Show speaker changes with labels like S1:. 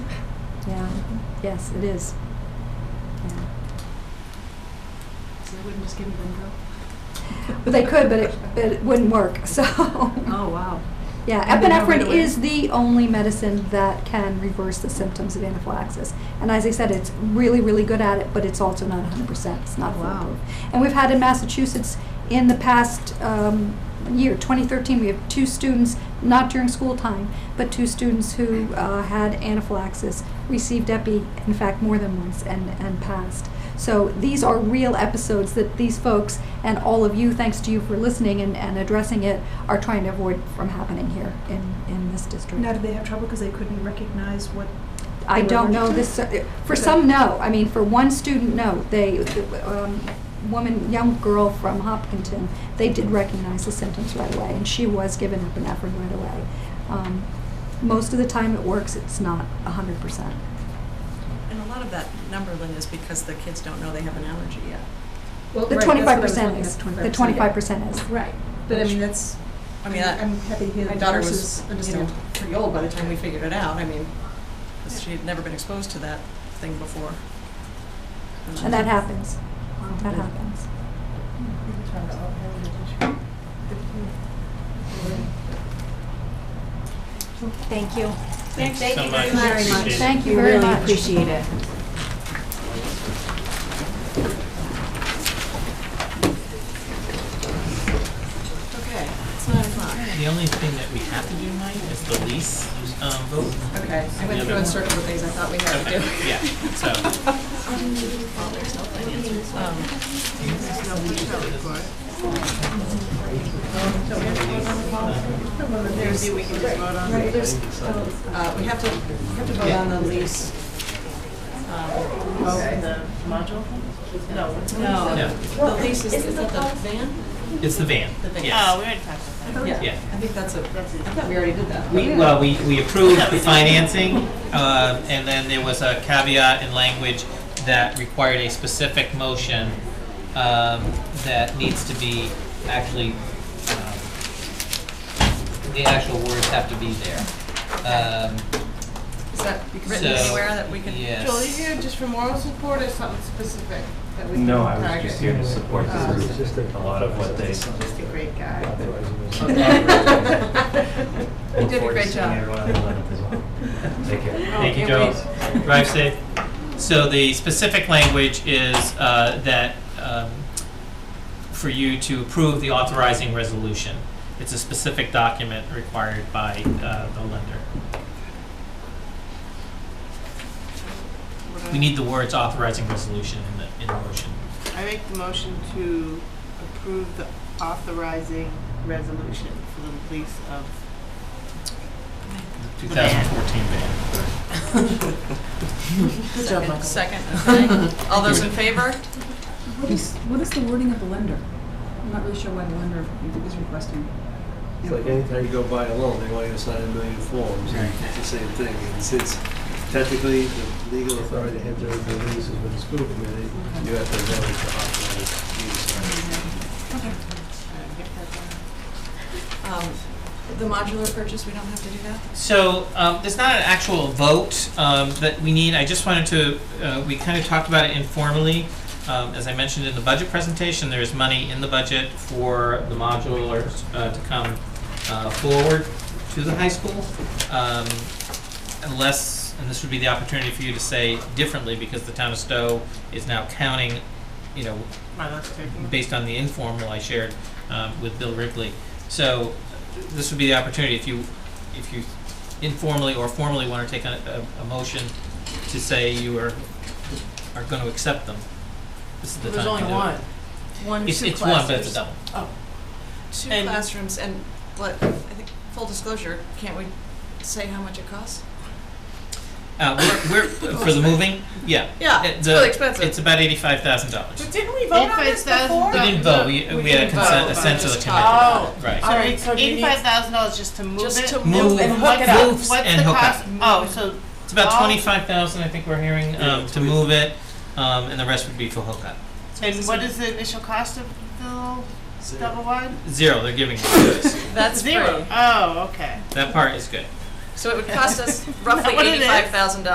S1: Yes, it is. Yeah.
S2: So they wouldn't just give you lingo?
S1: But they could, but it, but it wouldn't work, so.
S2: Oh, wow.
S1: Yeah,
S2: And they know right
S1: epinephrine
S2: away.
S1: is the only medicine that can reverse the symptoms of anaphylaxis. And as I said, it's really, really good at it, but it's also not hundred percent, it's not
S2: Oh, wow.
S1: foolproof. And we've had in Massachusetts, in the past, um, year, twenty thirteen, we have two students, not during school time, but two students who, uh, had anaphylaxis, received epi, in fact, more than once, and, and passed. So these are real episodes that these folks and all of you, thanks to you for listening and, and addressing it, are trying to avoid from happening here in, in this district.
S3: Now, did they have trouble because they couldn't recognize what?
S1: I
S3: they were
S1: don't know
S3: allergic to?
S1: this, uh, for
S3: Okay.
S1: some, no. I mean, for one student, no. They, um, woman, young girl from Hopkinton, they did recognize the symptoms right away, and she was given epinephrine right away. Um, most of the time it works, it's not a hundred percent.
S4: And a lot of that number, Lynn, is because the kids don't know they have an allergy yet.
S3: Well,
S1: The
S3: right, that's what I was
S1: twenty-five percent
S3: looking
S1: is,
S3: at,
S1: the twenty-five percent is.
S3: Right, but I mean, that's,
S4: I
S3: I
S4: mean,
S3: mean,
S4: that-
S3: I'm happy to hear
S4: My
S3: the
S4: daughter was,
S3: nurses
S4: you know,
S3: understand.
S4: pretty old by the time we figured it out. I mean, 'cause she had never been exposed to that thing before.
S1: And that happens. That happens.
S5: Thank you.
S6: Thanks
S5: Thank
S6: so
S5: you
S6: much.
S5: very much.
S6: Appreciate it.
S1: Thank you
S5: We
S1: very
S5: really
S1: much.
S5: appreciate it.
S4: Okay, it's nine o'clock.
S6: The only thing that we have to do, Mike, is the lease um, vote.
S4: Okay, I went through in circles of things I thought we had to
S6: Okay,
S4: do.
S6: yeah, so.
S4: Um, There's, we can just vote on. Uh, we have to, we have to vote on the lease. um,
S7: Oh, in the module? No.
S4: No,
S6: No.
S4: the lease is, is that the van?
S6: It's the van,
S4: The van.
S6: yes.
S7: Oh,
S5: Oh,
S7: we already talked about that.
S6: Yeah.
S4: I think that's a, I thought we already did that.
S6: We, well, we, we approved the financing, uh, and then there was a caveat in language that required a specific motion, um, that needs to be actually, um, the actual words have to be there. Um,
S4: Is that written
S6: so,
S4: anywhere that we can?
S6: yes.
S7: Joel, are you here just for moral support or something specific that we can
S8: No, I was
S7: target?
S8: just here to support
S7: Uh,
S8: this group. A lot of what they.
S7: Just a great guy.
S4: You did a great job.
S8: Take care.
S6: Thank
S1: Oh,
S6: you,
S4: can't
S6: Joe. Drive safe. So the specific language is uh, that um, for you to approve the authorizing resolution. It's a specific document required by uh, the lender. We need the words authorizing resolution in the, in the motion.
S7: I make the motion to approve the authorizing resolution for the release of
S6: 2014 ban.
S4: Good job, Michael. Second, okay. All those in favor?
S9: What is, what is the wording of the lender? I'm not really sure why the lender is requesting.
S10: It's like anytime you go buy a loan, they want you to sign a million forms.
S6: Right.
S10: It's the same thing. And since technically the legal authority to enter into the leases with the school committee, you have to know it's authorized use.
S4: Um, The modular purchase, we don't have to do that?
S6: So um, there's not an actual vote um, that we need. I just wanted to, uh, we kind of talked about it informally. Um, As I mentioned in the budget presentation, there is money in the budget for the modulars uh, to come uh, forward to the high school. Um, Unless, and this would be the opportunity for you to say differently because the town of Stowe is now counting, you know,
S7: my last taking.
S6: based on the informal I shared um, with Bill Wrigley. So uh, this would be the opportunity if you, if you informally or formally want to take on a, a motion to say you are, are going to accept them. This is the
S7: There's
S6: time to
S7: only
S6: do it.
S7: one.
S4: One,
S6: It's,
S4: two
S6: it's one, but it's a
S4: classrooms.
S6: double.
S4: Two
S6: and-
S4: classrooms, and let, I think, full disclosure, can't we say how much it costs?
S6: Uh, we're, we're, for the moving, yeah.
S4: Yeah,
S6: Uh,
S4: it's
S6: the-
S4: really expensive.
S6: It's about eighty-five thousand dollars.
S7: But didn't we vote on this before?
S6: We didn't vote, we, we had a
S7: didn't vote,
S6: consent, a
S7: but
S6: sense of the
S4: just Oh.
S6: committee.
S7: talked about
S6: Right.
S7: All right, so do you need-
S9: Eighty-five thousand dollars just to move it?
S4: Just to
S6: Move
S4: move and hook
S6: hook
S4: it up.
S6: roofs and hook up.
S9: What's the cost? Oh,
S6: It's about
S9: Oh.
S6: twenty-five thousand, I think we're hearing, um, to move it, um, and the rest would be for hookup.
S9: so, and what is the initial cost of the little double wide?
S6: Zero, they're giving us.
S4: That's
S9: Zero.
S4: free.
S9: Oh, okay.
S6: That part is good.
S4: So it would cost us roughly
S9: Not what it is.
S4: eighty-five thousand dollars